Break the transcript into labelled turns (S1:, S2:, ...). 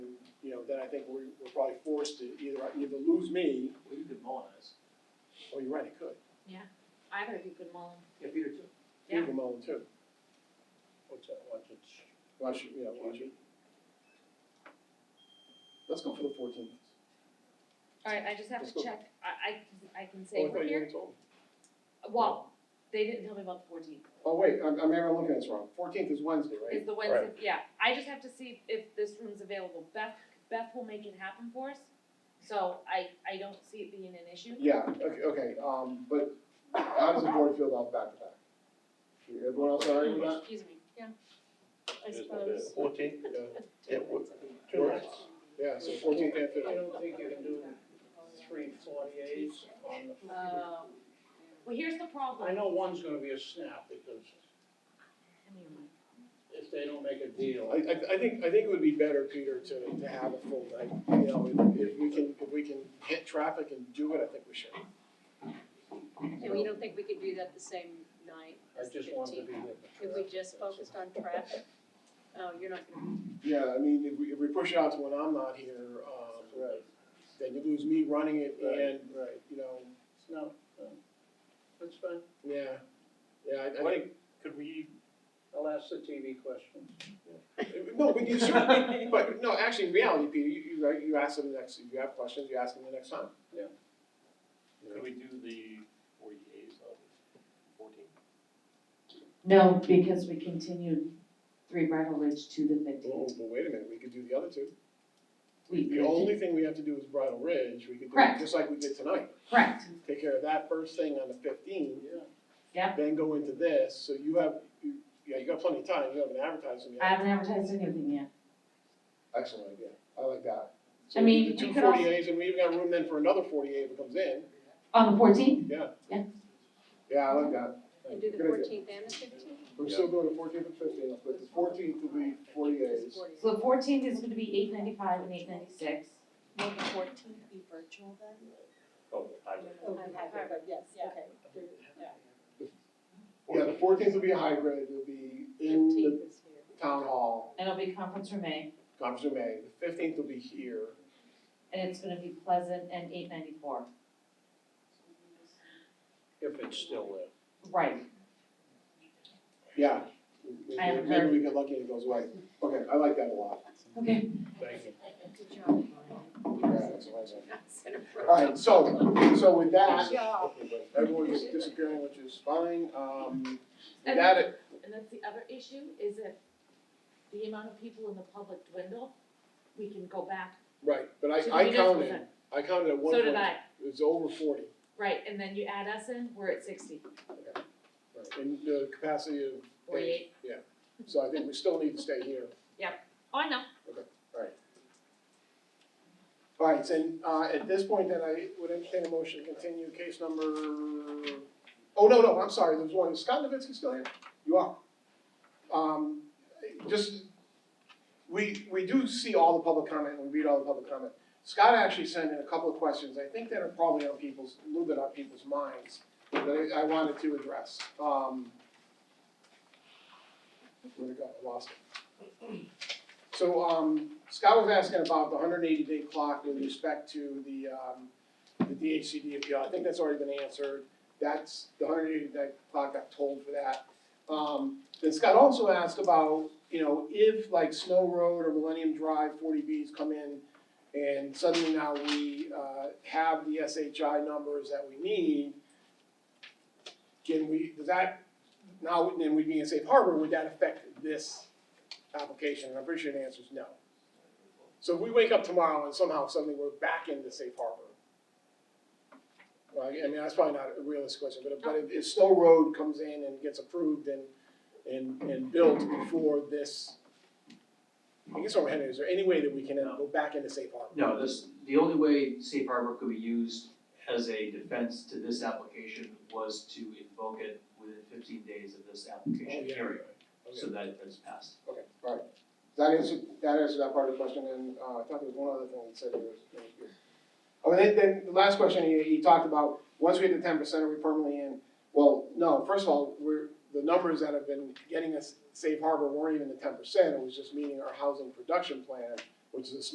S1: think we're, we're probably forced to either, either lose me,
S2: Well, you could mull on this.
S1: or you're right, it could.
S3: Either of you could mull
S2: Yeah, Peter too.
S1: You can mull it too.
S4: What's that, watch it,
S1: Watch, it, yeah, watch it. Let's go for the fourteenth.
S3: Alright, I just have
S1: Let's
S3: to
S1: go.
S3: check, I, I, I can
S1: Oh, I
S3: say
S1: thought
S3: we're
S1: you
S3: here,
S1: already told me.
S3: well, they didn't tell me about the fourteenth.
S1: Oh, wait, I'm, I'm, I'm looking at this wrong. Fourteenth is Wednesday, right?
S3: Is the Wednesday, yeah, I just have to see if this room's available, Beth, Beth will make it happen for us, so I, I don't see it being an issue.
S1: Yeah, okay, okay, um, but how does the board feel about back to back? Everyone else all right with that?
S3: Excuse me, yeah, I
S4: It is what it is.
S3: suppose.
S4: fourteen?
S1: Yeah.
S4: It would.
S1: Two nights. Yeah, so fourteenth and
S4: I
S1: fifteenth.
S4: don't think you can do three forty-eights on
S5: Uh,
S4: the.
S3: Um, well, here's the problem.
S4: I know one's gonna be a snap, because
S3: Give me a minute.
S4: if they don't make a deal,
S1: I, I, I think, I think it would be better, Peter, to, to have a full night, you know, if, if we can, if we can hit traffic and do it, I think we should.
S5: And we don't think we could do that the same night
S4: I
S5: as the
S4: just wanted to
S5: fifteenth?
S4: be with the.
S5: If we just focused on traffic? Oh, you're not gonna,
S1: Yeah, I mean, if we, if we push it out to when I'm not here, um,
S4: Right,
S1: then you lose me running it and,
S4: right, right,
S1: you know,
S4: no, no, that's fine,
S1: yeah, yeah, I, I
S4: What-
S1: think,
S2: Could we?
S4: I'll ask the TV question.
S1: No, but you certainly, but no, actually, in reality, Peter, you, you, right, you ask them the next, if you have questions, you ask them the next time.
S4: Yeah.
S2: Could we do the forty days of fourteen?
S6: No, because we continued Three Bridal Ridge to the
S1: Well,
S6: fifteenth.
S1: Oh, but wait a minute, we could do the other two.
S6: We
S1: The
S6: could-
S1: only thing we have to do is Bridal Ridge, we could do it
S6: Correct.
S1: just like we did tonight.
S6: Correct,
S1: Take care of that first thing on the fifteenth,
S4: Yeah.
S1: then go into this, so you have, you, yeah, you got plenty of time, you haven't advertised them
S6: I
S1: yet.
S6: haven't advertised anything yet.
S1: Excellent idea, I like that. So
S6: I mean,
S1: the two
S6: you could also-
S1: 48s, and we even got room then for another forty-eight if it comes in,
S6: On the fourteenth?
S1: yeah.
S6: Yeah.
S1: Yeah, I like that.
S5: and do the
S1: Good idea.
S5: fourteenth and the fifteenth?
S1: We're still doing the fourteenth and fifteenth, but the fourteenth will be forty A's.
S6: So the fourteenth is gonna be eight ninety-five and eight ninety-six.
S7: Will the fourteenth be virtual then?
S2: Oh, hybrid.
S7: yes, okay.
S1: Yeah, the fourteenth will be a hybrid, it'll be in the
S5: Fifteenth is here.
S1: town hall,
S6: And it'll be conference room A,
S1: conference room A, the fifteenth will be here.
S6: and it's gonna be Pleasant and eight ninety-four.
S4: If it's still there.
S6: Right,
S1: Yeah.
S6: I haven't
S1: Maybe
S6: heard.
S1: we get lucky and it goes away. Okay, I like that a lot.
S6: okay.
S4: Thank you.
S5: Good job.
S1: Yeah, that's what I said.
S5: That's an approach.
S1: All right, so, so with that,
S7: Yeah.
S1: everyone is disappearing, which is fine, um, with
S3: And
S1: that,
S3: that's-
S1: it-
S3: And that's the other issue, is if the amount of people in the public dwindle, we can go back
S1: right, but
S3: to the
S1: I, I
S3: municipal
S1: counted,
S3: center.
S1: I counted at one
S3: So
S1: point,
S3: did
S1: it
S3: I,
S1: was over forty.
S3: right, and then you add us in, we're at sixty,
S1: right, In the capacity of,
S3: forty-eight,
S1: yeah, so I think we still need to stay here.
S3: oh, I know.
S1: All right, so, uh, at this point, then I would entertain a motion to continue case number, oh, no, no, I'm sorry, there's one, is Scott Novitsky still here? You are. Um, just, we, we do see all the public comment, we read all the public comment. Scott actually sent in a couple of questions, I think that are probably on people's, a little bit on people's minds, that I, I wanted to address, um. Where'd it go, I lost it. So, um, Scott was asking about the hundred and eighty day clock with respect to the, um, the DHCD appeal, I think that's already been answered. That's, the hundred and eighty day clock got told for that. Um, then Scott also asked about, you know, if like Snow Road or Millennium Drive forty Bs come in and suddenly now we, uh, have the SHI numbers that we need, can we, does that, now, then we would be in safe harbor, would that affect this application, and I'm pretty sure the answer is no. So if we wake up tomorrow and somehow suddenly we're back into safe harbor. Well, I I mean, that's probably not a realistic question, but if, but if, if Snow Road comes in and gets approved and, and, and built before this, I guess what I'm heading, is there any way that we can uh, go back into safe harbor?
S8: No, this, the only way safe harbor could be used as a defense to this application was to invoke it within fifteen days of this application
S1: Okay.
S8: hearing, so
S1: Oh, Okay,
S8: that that's passed.
S1: okay, all right. That answers, that answers that part of the question, and, uh, I thought there was one other thing that said there was, there was- Oh, then, then the last question, he, he talked about, once we hit the ten percent, are we permanently in? Well, no, first of all, we're, the numbers that have been getting us safe harbor weren't even the ten percent, it was just meeting our housing production plan, which is a